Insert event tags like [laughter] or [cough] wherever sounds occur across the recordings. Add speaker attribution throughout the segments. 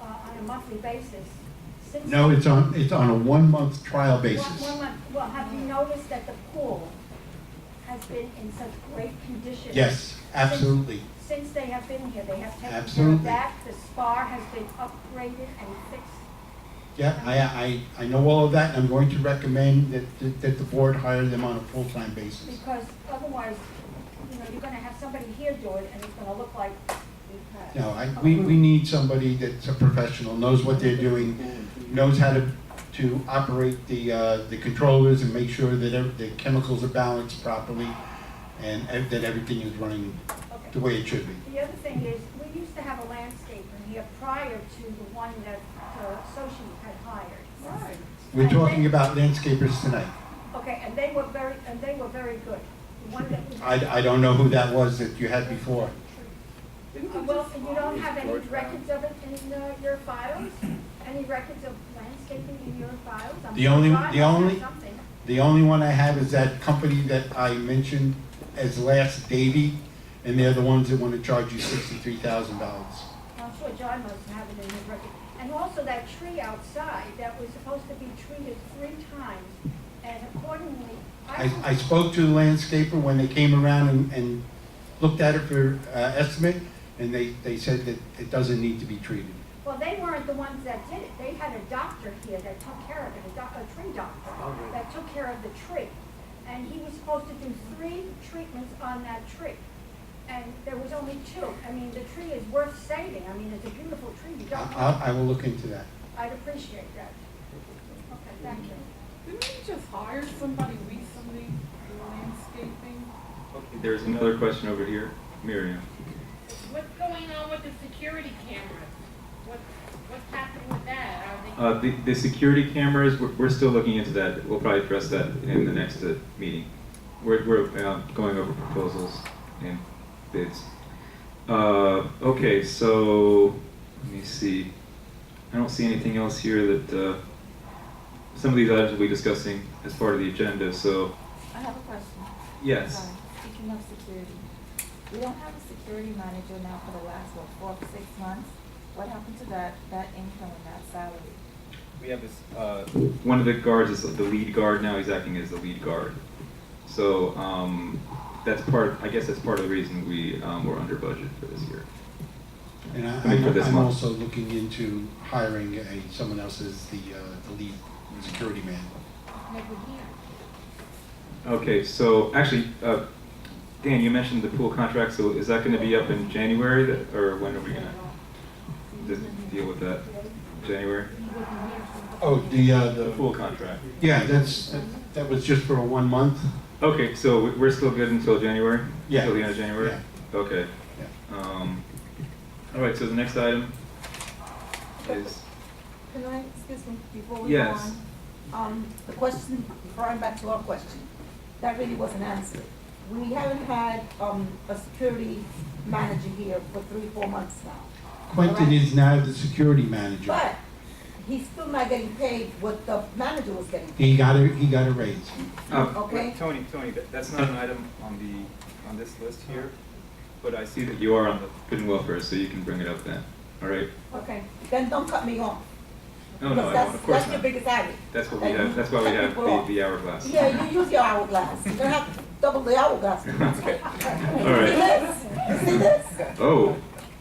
Speaker 1: Uh, monthly basis. Six-
Speaker 2: No, it's on, it's on a one-month trial
Speaker 1: One-
Speaker 2: basis.
Speaker 1: one month. Well, have you noticed that the pool has been in such great condition?
Speaker 2: Yes, absolutely.
Speaker 1: Since they have been here, they have taken care
Speaker 2: Absolutely.
Speaker 1: of that, the spa has been upgraded and fixed.
Speaker 2: Yeah, I, I, I know all of that, and I'm going to recommend that, that- that the board hire them on a full-time basis.
Speaker 1: Because otherwise, you know, you're gonna have somebody here do it and it's gonna look like we've had.
Speaker 2: No, I, we, we need somebody that's a professional, knows what they're doing, knows how to, to operate the, uh, the controllers and make sure that ev- the chemicals are balanced properly and ev- that everything is running
Speaker 1: Okay.
Speaker 2: the way it should be.
Speaker 1: The other thing is, we used to have a landscaper here prior to the one that the associate had hired.
Speaker 3: Right.
Speaker 2: We're talking about landscapers tonight.
Speaker 1: Okay, and they were very, and they were very good. The one that we had-
Speaker 2: I, I don't know who that was that you had before.
Speaker 3: Didn't
Speaker 1: Uh,
Speaker 3: we
Speaker 1: Well,
Speaker 3: just-
Speaker 1: you don't have any records of it in uh, your files? Any records of landscaping in your files? I'm
Speaker 2: The
Speaker 1: sure
Speaker 2: only-
Speaker 1: God must
Speaker 2: the
Speaker 1: have
Speaker 2: only-
Speaker 1: something.
Speaker 2: The only one I have is that company that I mentioned as last Davy, and they're the ones that want to charge you sixty-three thousand dollars.
Speaker 1: I'm sure John must have it in his record. And also that tree outside that was supposed to be treated three times, and accordingly, I,
Speaker 2: I, I spoke to the landscaper when they came around and, and looked at it for, uh, estimate, and they, they said that it doesn't need to be treated.
Speaker 1: well, they weren't the ones that did it. They had a doctor here that took care of it, a doc, a tree doctor, that took care of the tree. And he was supposed to do three treatments on that tree. And there was only two. I mean, the tree is worth saving. I mean, it's a beautiful tree. You
Speaker 2: I,
Speaker 1: don't want,
Speaker 2: I, I will look into that.
Speaker 1: I'd appreciate that. Okay, thank you.
Speaker 3: Didn't we just hire somebody recently for landscaping?
Speaker 4: Okay, There's another question over here, Miriam.
Speaker 5: What's going on with the security cameras? What, what's happening with that? Are
Speaker 4: Uh, the, the security cameras, we're, we're still looking into that. We'll probably address that in the next uh, meeting. We're, we're uh, going over proposals and bids. Uh, okay, so let me see. I don't see anything else here that uh, some of these items we'll be discussing as part of the agenda. So
Speaker 6: I have a question.
Speaker 4: yes,
Speaker 6: Sorry. Speaking of security, we don't have a security manager now for the last, what, four, six months? What happened to that, that income and that salary?
Speaker 7: We have this, uh,
Speaker 4: one of the guards is the lead guard now. He's acting as the lead guard. So um, that's part. I guess that's part of the reason we um, were under budget for this year.
Speaker 2: And I,
Speaker 4: I mean, for
Speaker 2: I'm-
Speaker 4: this
Speaker 2: I'm
Speaker 4: month.
Speaker 2: also looking into hiring a, someone else as the, uh, the lead security man.
Speaker 5: they never here?
Speaker 4: Okay, so actually, uh, Dan, you mentioned the pool contract, so is that gonna be up in January, that- or when are we gonna de- deal with that? January?
Speaker 2: Oh, the, uh,
Speaker 4: The pool contract.
Speaker 2: Yeah, that's, that- that was just for a one month.
Speaker 4: Okay, so we- we're still good until January?
Speaker 2: Yeah.
Speaker 4: Till the end of January? Okay. Um, all right, so the next item is,
Speaker 8: Can I, excuse me, before we go on?
Speaker 4: yes.
Speaker 8: Um, the question, referring back to our question, that really wasn't answered. We haven't had, um, a security manager here for three, four months now.
Speaker 2: Quentin is now the security manager.
Speaker 8: But he's still not getting paid what the manager was getting paid,
Speaker 2: He got a, he got a raise.
Speaker 4: Uh,
Speaker 8: okay?
Speaker 7: Tony, Tony, that- that's not an item on the, on this list here, but I
Speaker 4: see
Speaker 7: see
Speaker 4: that you are on the good and welfare, so you can bring it up then, all right?
Speaker 8: Okay, then don't cut me off.
Speaker 4: No, no, I
Speaker 8: Because
Speaker 4: don't,
Speaker 8: that's,
Speaker 4: of course
Speaker 8: that's your
Speaker 4: not.
Speaker 8: biggest area.
Speaker 4: That's what we have, that's why we have the, the hourglass.
Speaker 8: Yeah, you use your hourglass, you don't have to double the hourglass.
Speaker 4: Okay,
Speaker 8: See
Speaker 4: all right.
Speaker 8: this? You see this?
Speaker 4: [laughs]
Speaker 8: [laughs]
Speaker 4: Oh,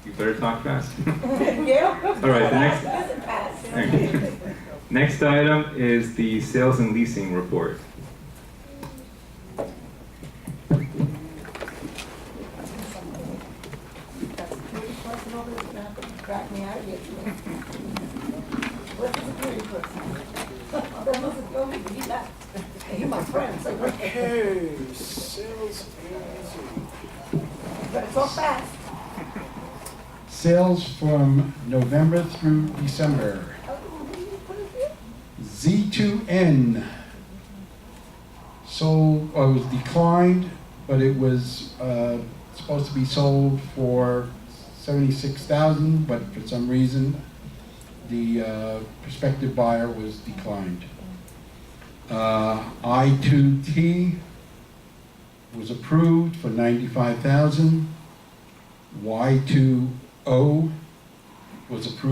Speaker 4: you better talk fast. [laughs]
Speaker 8: Yeah?
Speaker 4: All right, the next-
Speaker 8: Listen, Pat.
Speaker 4: Next item is the sales and leasing report.
Speaker 8: That's security person over there, gonna have to back me out of here. Where's the security person? That must have told me, he left. He my friend, so
Speaker 9: Okay, sales and
Speaker 8: better talk fast.
Speaker 2: Sales from November through December.
Speaker 8: Oh, what do you put it here?
Speaker 2: Z2N sold, or was declined, but it was uh, supposed to be sold for 76,000, but for some reason, the uh, prospective buyer was declined. Uh, I2T was approved for 95,000. Y2O was approved